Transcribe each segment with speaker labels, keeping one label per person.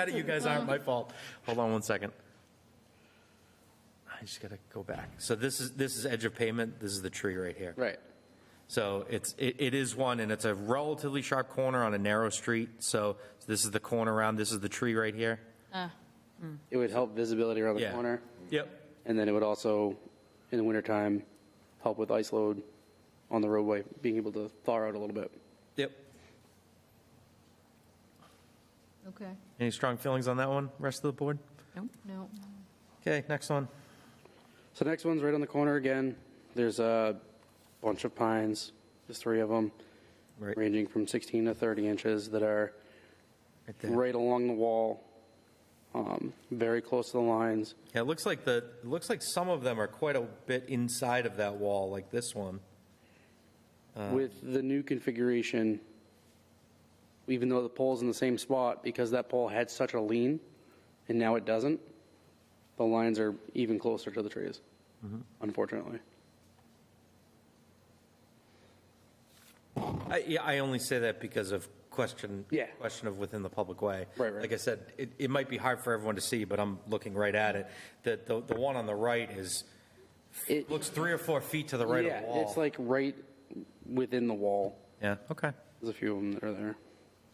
Speaker 1: Mad at You guys aren't my fault. Hold on one second. I just gotta go back. So this is, this is edge of pavement, this is the tree right here.
Speaker 2: Right.
Speaker 1: So it's, it, it is one, and it's a relatively sharp corner on a narrow street, so this is the corner around, this is the tree right here.
Speaker 2: It would help visibility around the
Speaker 1: Yeah.
Speaker 2: corner,
Speaker 1: Yep.
Speaker 2: and then it would also, in the wintertime, help with ice load on the roadway, being able to thaw out a little bit.
Speaker 1: Yep.
Speaker 3: Okay,
Speaker 1: Any strong feelings on that one, rest of the board?
Speaker 3: no.
Speaker 1: Okay, next one.
Speaker 2: So next one's right on the corner again. There's a bunch of pines, there's three of them,
Speaker 1: Right,
Speaker 2: ranging from 16 to 30 inches that are
Speaker 1: right there.
Speaker 2: right along the wall, um, very close to the lines.
Speaker 1: Yeah, it looks like the, it looks like some of them are quite a bit inside of that wall, like this one.
Speaker 2: With the new configuration, even though the pole's in the same spot, because that pole had such a lean, and now it doesn't, the lines are even closer to the trees, unfortunately.
Speaker 1: I, yeah, I only say that because of question.
Speaker 2: Yeah.
Speaker 1: Question of within the public way.
Speaker 2: Right, right.
Speaker 1: Like I said, it, it might be hard for everyone to see, but I'm looking right at it. The, the, the one on the right is,
Speaker 2: It,
Speaker 1: looks three or four feet to the right of
Speaker 2: yeah,
Speaker 1: the wall.
Speaker 2: it's like right within the wall.
Speaker 1: Yeah, okay.
Speaker 2: There's a few of them that are there.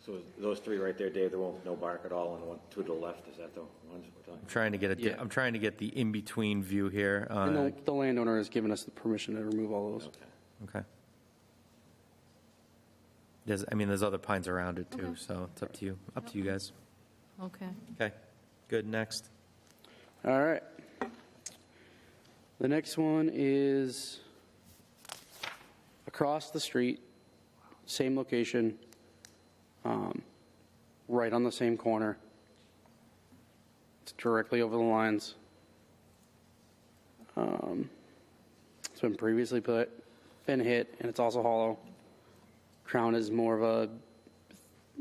Speaker 4: So those three right there, Dave, there won't, no bark at all, and one, two to the left, is that the ones we're talking?
Speaker 1: I'm trying to get
Speaker 2: Yeah.
Speaker 1: a, I'm trying to get the in-between view here.
Speaker 2: And
Speaker 1: uh,
Speaker 2: the, the landowner has given us the permission to remove all those.
Speaker 4: Okay.
Speaker 1: Okay. There's, I mean, there's other pines around it too, so it's up to you, up to you guys.
Speaker 3: Okay,
Speaker 1: Okay, good, next.
Speaker 2: All right. The next one is across the street, same location, um, right on the same corner. It's directly over the lines. Um, it's been previously put, been hit, and it's also hollow. Crown is more of a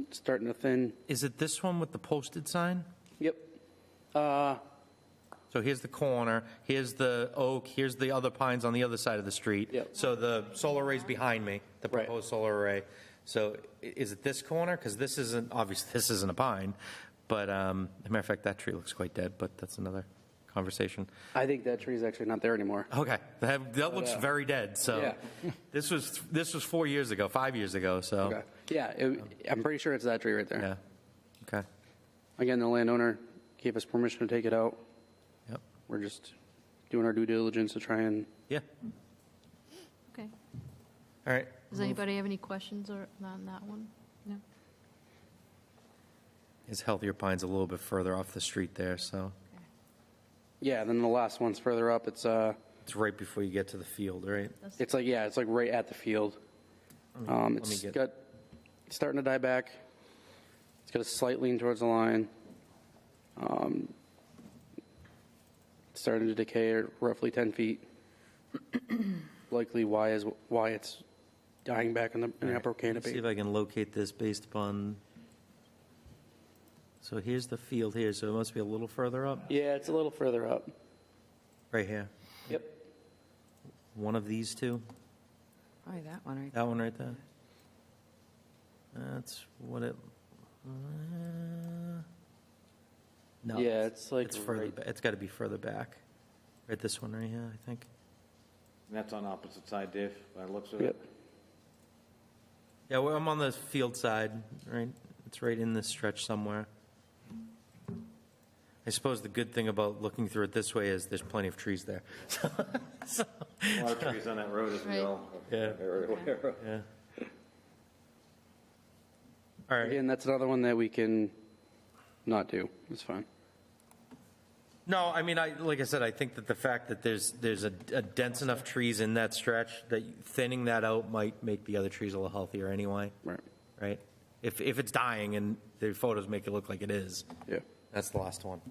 Speaker 2: starting to thin.
Speaker 1: Is it this one with the posted sign?
Speaker 2: Yep. Uh,
Speaker 1: So here's the corner, here's the oak, here's the other pines on the other side of the street.
Speaker 2: Yep.
Speaker 1: So the solar array's behind me, the
Speaker 2: Right.
Speaker 1: proposed solar array. So i- is it this corner? Because this isn't, obviously, this isn't a pine, but, um, as a matter of fact, that tree looks quite dead, but that's another conversation.
Speaker 2: I think that tree is actually not there anymore.
Speaker 1: Okay, that, that looks
Speaker 2: uh,
Speaker 1: very dead, so.
Speaker 2: yeah.
Speaker 1: This was, this was four years ago, five years ago, so,
Speaker 2: Okay. Yeah, it, I'm pretty sure it's that tree right there.
Speaker 1: Oh. yeah. Okay,
Speaker 2: Again, the landowner gave us permission to take it out.
Speaker 1: yep,
Speaker 2: We're just doing our due diligence to try and.
Speaker 1: yeah,
Speaker 3: okay.
Speaker 1: all right.
Speaker 3: Does anybody have any questions or, on that one? No.
Speaker 1: His healthier pine's a little bit further off the street there, so.
Speaker 2: Yeah, then the last one's further up. It's uh,
Speaker 1: It's right before you get to the field, right?
Speaker 2: it's like yeah, it's like right at the field. Um,
Speaker 1: Mm-hmm. let me
Speaker 2: it's
Speaker 1: get-
Speaker 2: got it's starting to die back. It's got a slight lean towards the line. Um, it's starting to decay at roughly 10 feet. Likely why is why it's dying back in the, in the upper canopy.
Speaker 1: See if I can locate this based upon, so here's the field here, so it must be a little further up,
Speaker 2: Yeah, it's a little further up.
Speaker 1: right here.
Speaker 2: Yep.
Speaker 1: One of these two,
Speaker 5: Probably that one right
Speaker 1: that one right there. That's what it, uh, no.
Speaker 2: Yeah, it's like
Speaker 1: It's further,
Speaker 2: right-
Speaker 1: ba- it's got to be further back. Right, this one right here, I think.
Speaker 4: And that's on opposite side, Dave, by the looks of
Speaker 2: Yep.
Speaker 4: it?
Speaker 1: Yeah, well, I'm on the field side, right? It's right in this stretch somewhere. I suppose the good thing about looking through it this way is there's plenty of trees there.
Speaker 4: A lot of trees on that road, as we
Speaker 3: Right.
Speaker 4: all
Speaker 1: Yeah.
Speaker 4: are very aware of.
Speaker 1: Yeah. All right.
Speaker 2: Again, that's another one that we can not do. It's fine.
Speaker 1: No, I mean, I, like I said, I think that the fact that there's, there's a a dense enough trees in that stretch that thinning that out might make the other trees a little healthier anyway,
Speaker 2: Right.
Speaker 1: right? If, if it's dying and the photos make it look like it is,
Speaker 2: Yeah.
Speaker 1: that's the last one,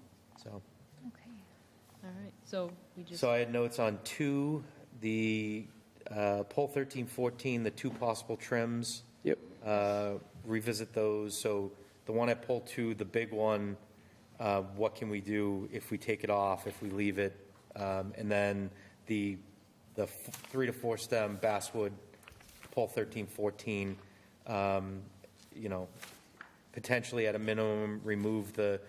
Speaker 1: so.
Speaker 3: All right, so we just,
Speaker 1: So I had notes on two, the uh, poll thirteen fourteen, the two possible trims,
Speaker 2: Yep.
Speaker 1: uh, revisit those. So the one at poll two, the big one, uh, what can we do if we take it off, if we leave it? Um, And then the, the f- three to four stem basswood, poll thirteen fourteen, um, you know, potentially at a minimum, remove the